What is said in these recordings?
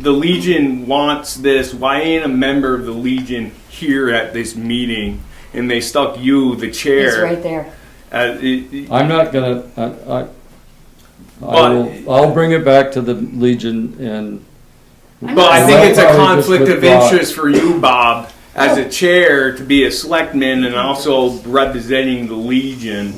the Legion wants this. Why ain't a member of the Legion here at this meeting? And they stuck you, the It's chair. right there. Uh, it- it- I'm not gonna, I, I, I But- will, I'll bring it back to the Legion and, But I think it's a Probably just conflict of withdraw it. interest for you, Bob, as a chair to be a selectman and also representing the Legion.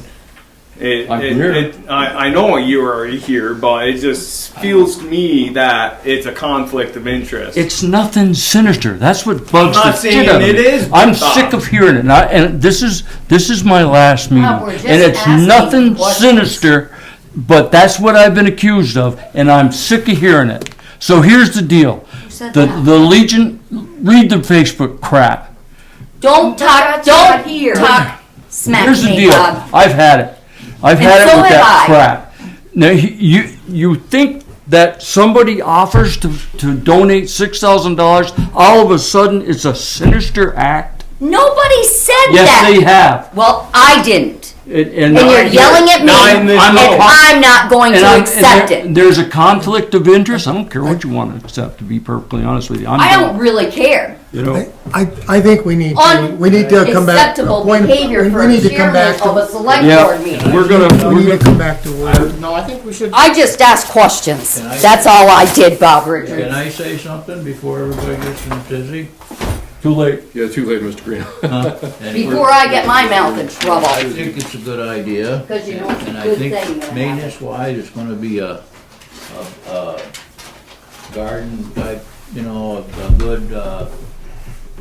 It, I'm it- here. it- I, I know you are here, but it just feels to me that it's a conflict of interest. it's nothing sinister, that's what bugs I'm the not shit out saying of me. it is, I'm Bob. sick of hearing it, and I, and this is, this is my last meeting, Bob, we're just and it's asking nothing questions. sinister, but that's what I've been accused of, and I'm sick of hearing it. So here's the deal, said the, that? the Legion, read the Facebook crap. Don't talk, That's don't not here. talk smack Here's the to me, deal. Bob. I've had it. I've And had it so with have that I. crap. Now he- you you think that somebody offers to, to donate six thousand dollars, all of a sudden it's a sinister act? Nobody said Yes, that. they have. Well, I didn't. And, and- And you're and yelling at me, Now I'm and the- I'm not going to I'm- and accept there- it. There's a conflict of interest. I don't care what you want to accept. To be perfectly honest with you, I'm I don't really care. You know, I, I I think we need to, On- we need to come back. to a Acceptable point- behavior we- for we a need to come chairman back to- of a select Yeah. board meeting. we're gonna we're We need to gonna. come back to word. No, I think we should. I just asked questions. That's all I did, Bob Richards. Can I say something before everybody gets in dizzy? Too late. Yeah, too late, Mr. Green. Before I get my mouth in trouble. I think it's a good idea. 'Cause you know it's a And I good think thing that maintenance wise, it's gonna be a, a, a garden type, you know, a, a good, uh,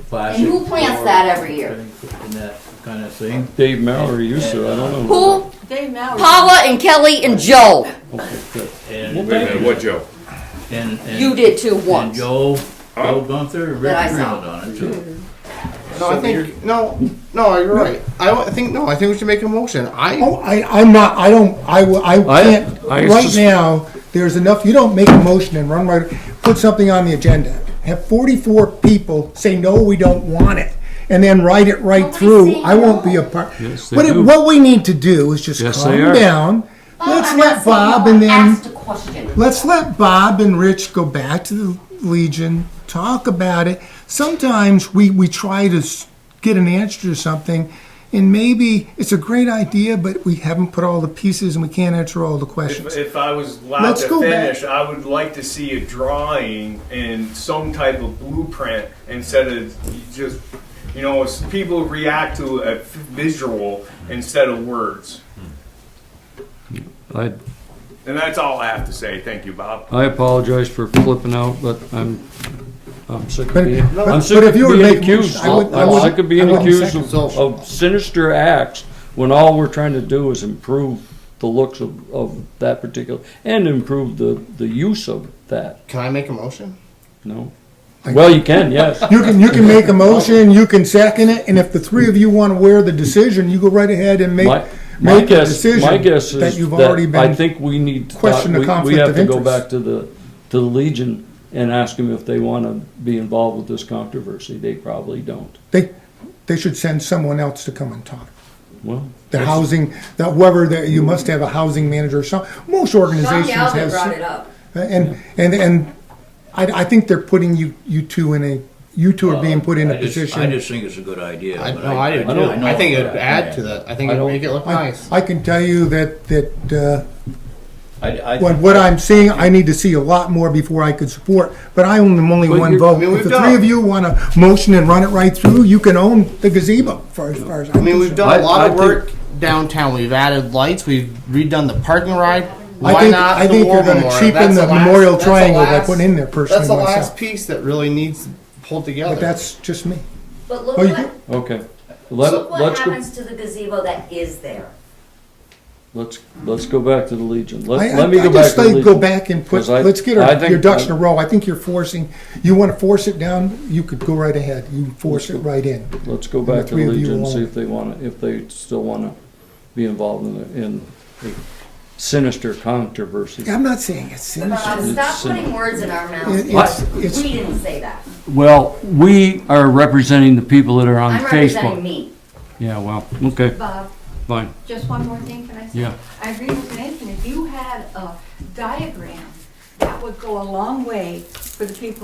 plastic. who plants flower that every year? And that kind of thing. Dave Mallory used to. I don't know. Who? Dave Mallory. Paula and Kelly and Joe. And, Wait a minute, what, Joe? and. and- You did too And once. Joe, Joe Gunther, Rick I saw. Greenwood on it too. No, I think no, no. You're right. I don't- I think no. I think we should make a motion. I Oh, I, I'm not, I don't, I, will- I I- can't, I right sus- now, there's enough, you don't make a motion and run right, put something on the agenda. Have forty-four people say, no, we don't want it, and then write it right Nobody's through, saying I won't no. be a part. Yes, they What, it- do. what we need to do is just Yes, they calm are. down, let's let Bob and then. Asked a question. Let's let Bob and Rich go back to the Legion, talk about it. Sometimes we, we try to s- get an answer to something, and maybe it's a great idea, but we haven't put all the pieces and we can't answer all the If, questions. if I was allowed Let's to go back. finish, I would like to see a drawing and some type of blueprint instead of you just, you know, it's- people react to a f- visual instead of words. I And that's all I have to say. Thank you, Bob. I apologize for flipping out, but I'm, I'm sick of But- being, but- I'm sick but of if you were being making- accused. I would- I I'm would- sick of I being wouldn't accused second of, of sinister acts when all we're trying to do is improve the looks of, of that particular, and improve the, the use of that, can I make a motion? no? Well, you can, yes. You can, you can make a motion, you can second it, and if the three of you want to wear the decision, you go right ahead and make, My, my make the guess, my decision guess that is you've already that I been. think we need to, talk- question the we, we conflict have of to go interest. back to the, to the Legion and ask them if they wanna be involved with this controversy, they probably don't, They, they should send someone else to come and talk. well. The housing, that whoever, that you must have a housing manager or some, most Sean organizations Galvin have. brought some- uh, it up. And, and, and I, I think they're putting you, you two in a, you two are being put in I a just- I position. just think it's a good idea. I, but no, I, didn't. I do it. know I think it'd that. add to that. I think I it'd don't- make it look I, nice. I can tell you that, that, I, I. uh, what, what I'm seeing, I need to see a lot more before I could support, but I own only But one you're- vote. I mean, If we've the done- three of you want a motion and run it right through, you can own the gazebo, far as far as I I'm mean, we've concerned. done I- a lot I of think- work downtown. We've added lights. We've redone the parking ride. Why I think, not I the think war you're gonna memorial? cheapen That's the last- memorial that's triangle by last- putting in there That's the personally last myself, piece that really needs pulled together. but that's just me. But look Oh, you what, do? Okay. look Let, what let's go, happens to the gazebo that is there. let's, let's go back to the Legion. I, Let, I, let me I go back just to the say go Legion. back and put, 'Cause I- let's get I our, think- your ducks in a row. I think you're forcing, you want to force it down, you could go right ahead. You force it right in. Let's go back to three the of you Legion, alone. see if they wanna, if they still wanna be involved in, the- in a sinister controversy. I'm not saying it's sinister. Bob, stop putting words in our It- mouths. It's, it's, We didn't say that. Well, we are representing the people that are on I'm representing me. Yeah, well, okay, Bob, fine, Uh, just one more thing, can I say? Yeah. I agree with Nathan, if you had a diagram, that would go a long way for the people